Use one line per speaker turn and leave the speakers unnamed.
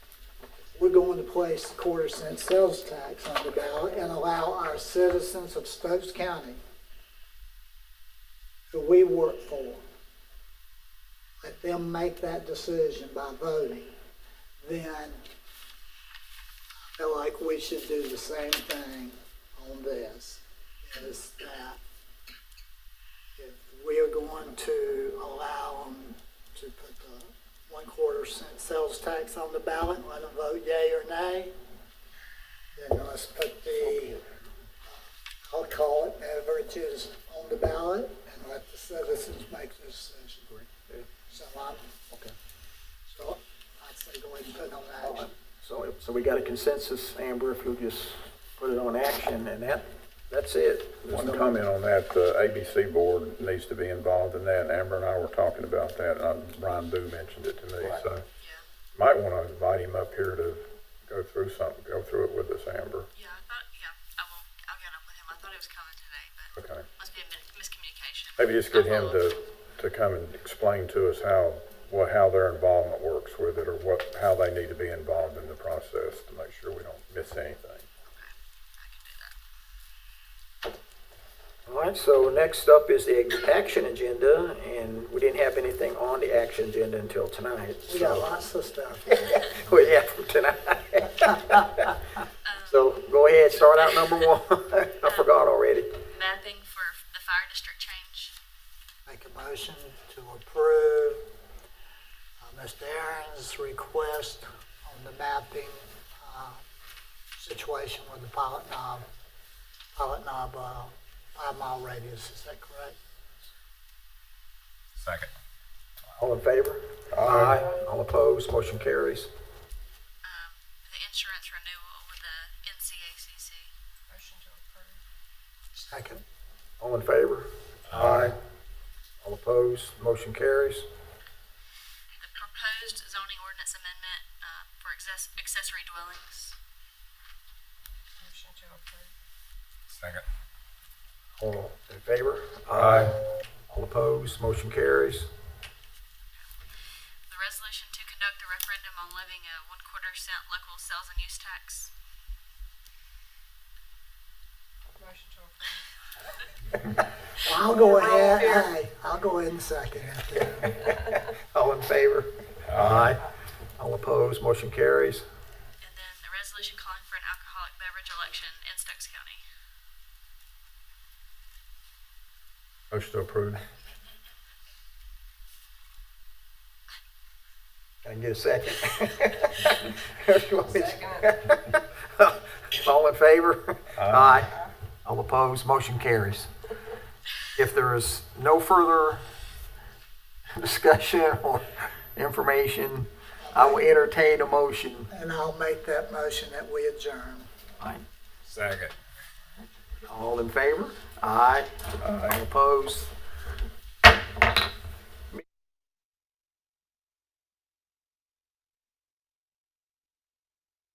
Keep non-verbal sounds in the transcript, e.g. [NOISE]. going to place the quarter cent sales tax on the ballot and allow our citizens of Stokes County who we work for, let them make that decision by voting, then I feel like we should do the same thing on this, is that if we are going to allow them to put the one quarter cent sales tax on the ballot, let them vote yea or nay, then let's put the, uh, I'll call it, averages on the ballot and let the citizens make the decision. So I'm,
Okay.
so I'd say go ahead and put it on action.
So, so we got a consensus, Amber, if you'll just put it on action and that, that's it.
One comment on that, the ABC board needs to be involved in that. Amber and I were talking about that, and I- Brian Boo mentioned it to me, so. Might want to invite him up here to go through something, go through it with us, Amber.
Yeah, I thought, yeah, I will, I'll get up with him. I thought he was coming today, but
Okay.
must be a min- miscommunication.
Maybe just get him
I'll follow
to, to come and explain to us how, what, how their involvement works with it, or what, how they need to be involved in the process to make sure we don't miss anything.
Okay, I can do that.
All right, so next up is the ex- action agenda, and we didn't have anything on the action agenda until tonight.
We got
So,
lots of stuff.
[LAUGHS] well, yeah, from
[LAUGHS]
tonight. So go ahead, start out number one. I forgot already.
Mapping for f- the fire district change.
Make a motion to approve uh, Mr. Aaron's request on the mapping uh, situation with the Pilot Knob, Pilot Knob uh, five mile radius, is that correct?
Second.
All in favor? All opposed, motion carries.
Um, the insurance renewal with the NCACC. Motion to approve.
Second.
All in favor? Aye. All opposed, motion carries.
The proposed zoning ordinance amendment, uh, for access, accessory dwellings. Motion to approve.
Second.
All in favor?
Aye.
All opposed, motion carries.
The resolution to conduct the referendum on levying a one quarter cent local sales and use tax. Motion to approve.
I'll go ahead, aye, I'll go ahead and second it.
All in favor? Aye. All opposed, motion carries.
[LAUGHS] And then the resolution calling for an alcoholic beverage election in Stokes County.
Motion to approve.
Can I get a [LAUGHS] second? All in favor? Aye. All opposed, motion carries. If there is no further discussion or information, I will entertain a motion.
And I'll make that motion that we adjourn.
Second.
All in favor? Aye. All opposed?